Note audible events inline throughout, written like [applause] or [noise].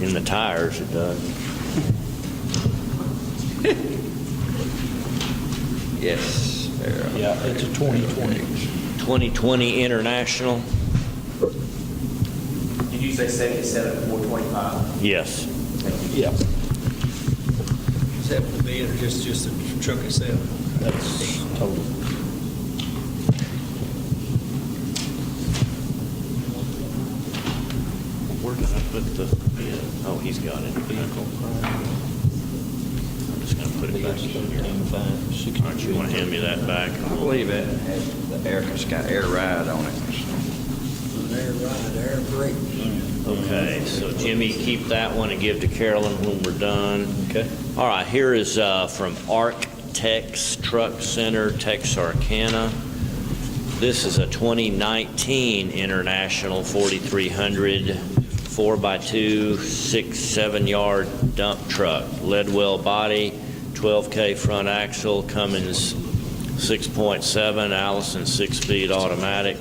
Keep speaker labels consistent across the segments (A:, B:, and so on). A: in the tires, it does. Yes. there.
B: Yeah, it's a 2020.
A: 2020 International,
C: Did you say seventy-seven, four twenty-five?
A: yes.
B: Yeah,
D: Is that for the bid or just, just the truck itself?
B: that's total.
A: Where did I put the, yeah, oh, he's got it. I'm just gonna put it back in here. All right, you wanna hand me that back?
E: I believe it had the air, it's got air ride on it.
D: Air ride, air brake.
A: Okay, so Jimmy, keep that one and give to Carolyn when we're done.
B: Okay.
A: All right, here is uh, from Arc Tex Truck Center, Texarkana. This is a 2019 International 4300 4x2, 6, 7-yard dump truck, Leadwell body, 12K front axle, Cummins 6.7, Allison 6-speed automatic,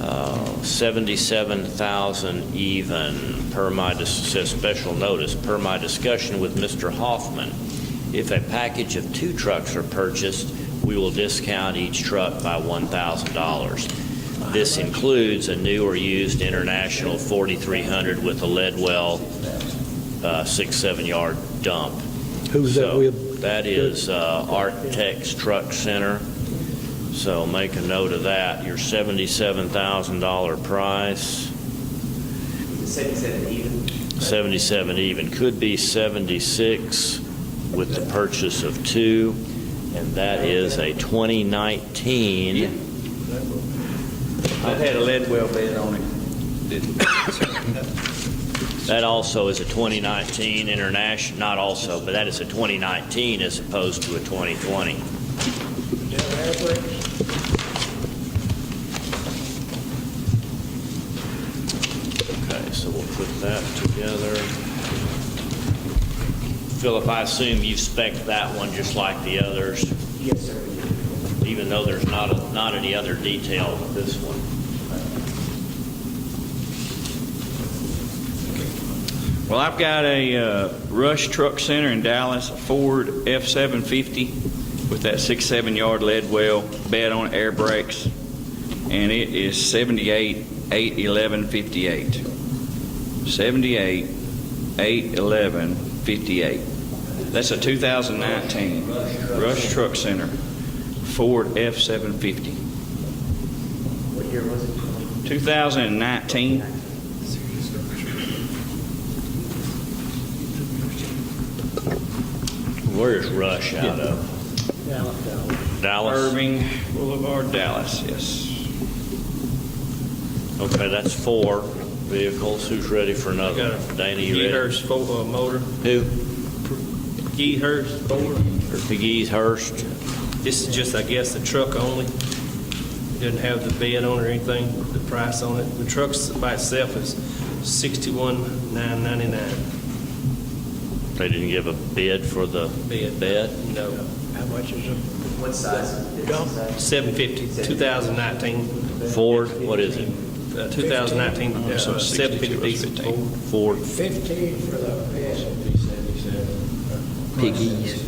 A: uh, 77,000 even, per my, dis- says special notice, per my discussion with Mr. Hoffman. If a package of two trucks are purchased, we will discount each truck by $1,000. This includes a new or used International 4300 with a lead well, uh, six, seven-yard dump.
B: Who's that
A: So,
B: with?
A: That is uh, Arctex Truck Center. So make a note of that. Your $77,000 price,
C: Seventy-seven even?
A: 77 even, could be 76 with the purchase of two, and that is a 2019.
E: It had a lead well bed on it.
A: That also is a 2019 international, not also, but that is a 2019 as opposed to a 2020.
D: air brake?
A: Okay, so we'll put that together. Philip, I assume you spec that one just like the others,
C: Yes, sir.
A: even though there's not, a- not any other detail with this one.
E: Well, I've got a uh, Rush Truck Center in Dallas, a Ford F-750 with that six, seven-yard lead well bed on it, air brakes, and it is 78, 8, 11, 58. 78, 8, 11, 58. That's a 2019 Rush Truck Center Ford F-750.
C: What year was it?
E: 2019,
A: Where is Rush out of? Dallas.
E: Irving Boulevard, Dallas, yes.
A: Okay, that's four vehicles. Who's ready for another? Dana, you ready?
D: Geethers fo- uh, motor,
A: Who?
D: Geethers motor.
A: McGee's Hurst?
D: This is just, I guess, the truck only. Doesn't have the bed on or anything, the price on it. The truck's by itself is sixty-one nine ninety-nine
A: They didn't give a bid for the
D: bed.
A: bed?
D: No,
F: How much is a
C: What size?
F: Dump.
D: seven fifty, two thousand nineteen,
A: Ford, what is it?
D: uh, two thousand nineteen,
E: Oh, so
D: uh,
E: 62
D: seven fifty
E: was
D: diesel.
E: 15.
A: Ford?
F: fifteen for the bed?
A: Piggies.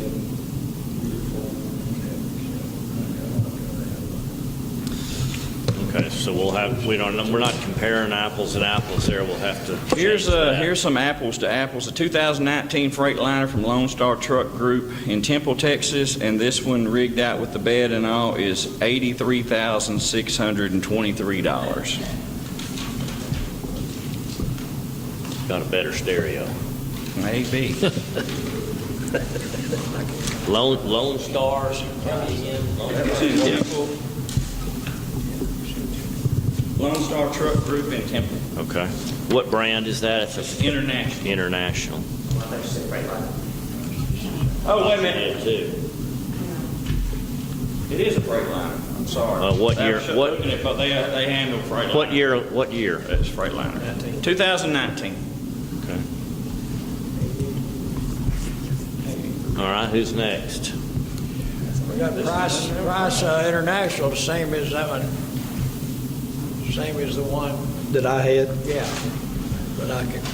A: Okay, so we'll have, we don't, we're not comparing apples and apples there, we'll have to
E: Here's,
A: change
E: uh,
A: that.
E: here's some apples to apples. A 2019 Freightliner from Lone Star Truck Group in Temple, Texas, and this one rigged out with the bed and all is $83,623.
A: Got a better stereo.
E: [laughs] Maybe.
A: Lone, Lone Stars, tell me again.
E: Lone Star Truck Group in Temple,
A: Okay. What brand is that? It's a
E: international.
A: international.
C: I thought you said right line.
E: Oh, wait a
A: Yeah,
E: minute.
A: too.
E: It is a Freightliner. I'm sorry.
A: Uh, what
E: I
A: year-
E: was
A: what-
E: looking at, But they, they handle Freightliner.
A: What year, what year?
E: That's Freightliner. 2019.
A: All right, who's next?
F: We got Price, Price uh, International, the same as that one, same as the one,
B: That I had?
F: yeah, but I can